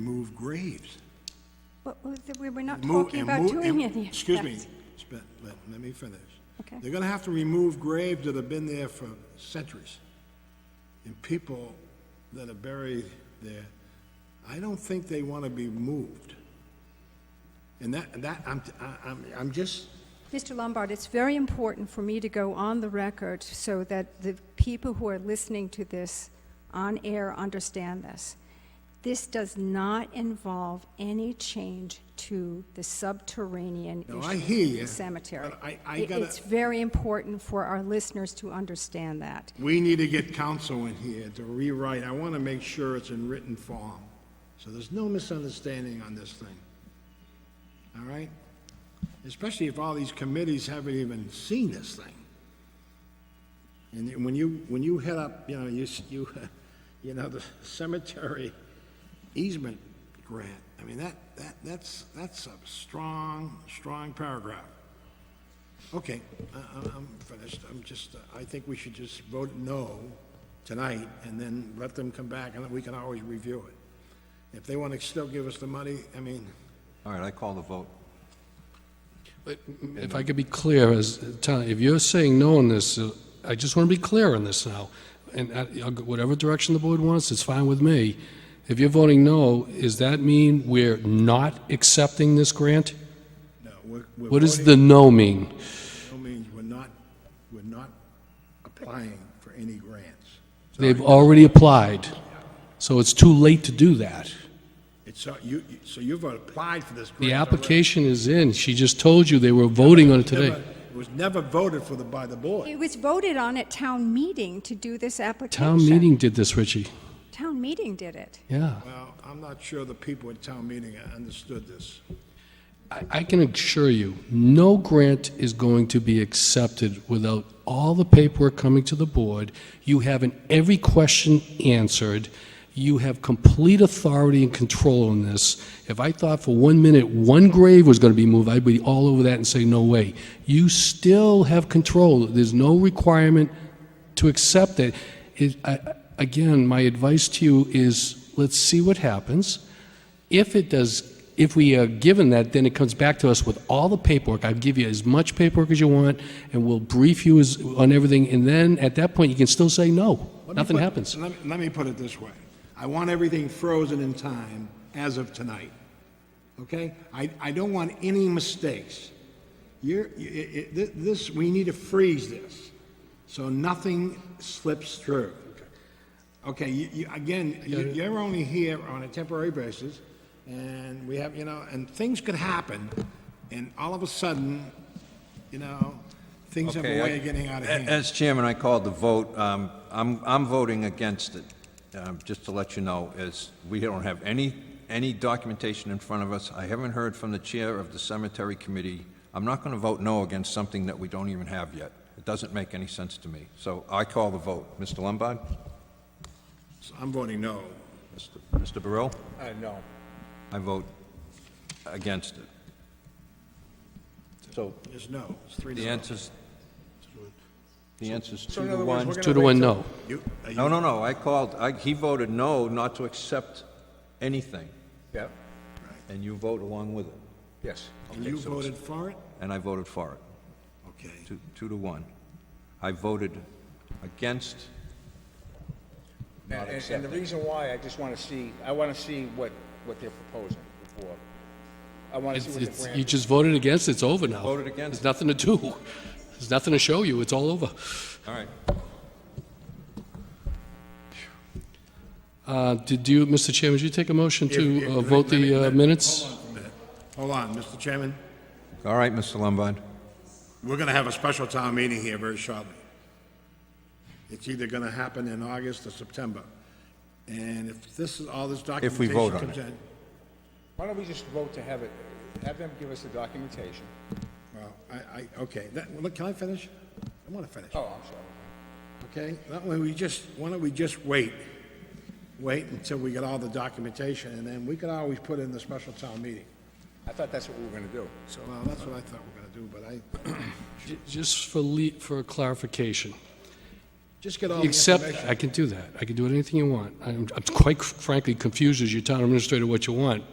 move graves. But we were not Move- talking and about move- doing and- any of Excuse me, that. spe- let, let me finish. Okay. They're gonna have to remove graves that have been there for centuries, and people that are buried there, I don't think they wanna be moved. And that, and that, I'm, I- I'm, I'm just, Mr. Lombard, it's very important for me to go on the record so that the people who are listening to this on air understand this. This does not involve any change to the subterranean No, issue I hear of you, the cemetery. but I- I It- gotta- It's very important for our listeners to understand that. we need to get counsel in here to rewrite, I wanna make sure it's in written form. So there's no misunderstanding on this thing. All right? Especially if all these committees haven't even seen this thing. And when you, when you head up, you know, you, s- you, you know, the cemetery easement grant, I mean, that, that, that's, that's a strong, strong paragraph. Okay, I, I- I'm finished, I'm just, I think we should just vote no tonight, and then let them come back, and we can always review it. If they want to still give us the money, I mean, All right, I call the vote. But If I could be clear, as, Tom, if you're saying no on this, uh, I just want to be clear on this now, and I- I'll go- whatever direction the board wants, it's fine with me. If you're voting no, does that mean we're not accepting this grant? no, we're, we're What does voting- the no mean? No means we're not, we're not applying for any grants. They've already applied, so it's too late to do that. It's, so you, you- so you've applied for this grant. The already. application is in, she just told you they were voting on it today. Never- It was never voted for the, by the board. It was voted on at town meeting to do this application. Town meeting did this, Richie, Town meeting did it. yeah. Well, I'm not sure the people at town meeting understood this. I- I can assure you, no grant is going to be accepted without all the paperwork coming to the board. You having every question answered. You have complete authority and control on this. If I thought for one minute one grave was going to be moved, I'd be all over that and say, no way. You still have control. There's no requirement to accept it. It- I- I- Again, my advice to you is, let's see what happens. If it does, if we are given that, then it comes back to us with all the paperwork. I'll give you as much paperwork as you want, and we'll brief you as, on everything, and then at that point, you can still say no. Let me Nothing put- happens. Let, me- let me put it this way. I want everything frozen in time as of tonight, okay? I, I don't want any mistakes. You're, i- i- thi- this, we need to freeze this, so nothing slips through. Okay, you, you, again, you- you're only here on a temporary basis, and we have, you know, and things could happen, and all of a sudden, you know, things have Okay, a I- way of getting out of A- hand. As chairman, I called the vote. Um, I'm, I'm voting against it, um, just to let you know, as we don't have any, any documentation in front of us. I haven't heard from the chair of the cemetery committee. I'm not going to vote no against something that we don't even have yet. It doesn't make any sense to me. So I call the vote. Mr. Lombard? So I'm voting no. Mr. Mr. Burrell? Uh, No. I vote against it. So It's no. It's three to the no. answer's, the answer's So two in to other words, one. we're gonna Two to one, no. You- uh, you- No, no, no, I called, I, he voted no, not to accept anything, Yeah, and you vote along with it. yes. And you voted for it? And I voted for it, Okay. two, two to one. I voted against, And, and- and the reason why, I just wanna see, I wanna see what, what they're proposing before. I wanna see It's, what the it's, grant you is. just voted against, it's over now. Voted against. There's nothing to do. There's nothing to show you, it's all over. all right. Uh, did you, Mr. Chairman, did you take a motion If- if- to uh, let me- vote let me- the uh, let me- Hold minutes? on for a minute. Hold on, Mr. Chairman. All right, Mr. Lombard. We're going to have a special town meeting here very shortly. It's either going to happen in August or September. And if this is, all this If we vote documentation on comes it. in, Why don't we just vote to have it, have them give us the documentation? well, I, I, okay, that, well, look, can I finish? I want to finish. Oh, I'm sorry. Okay, that way we just, why don't we just wait? Wait until we get all the documentation, and then we could always put in the special town meeting. I thought that's what we were gonna do. So, well, that's what I thought we were going to do, but I, J- Just for le, for clarification, Just get all the Except, information. I can do that. I can do anything you want. I'm I'm quite frankly confused as your town administrator what you want,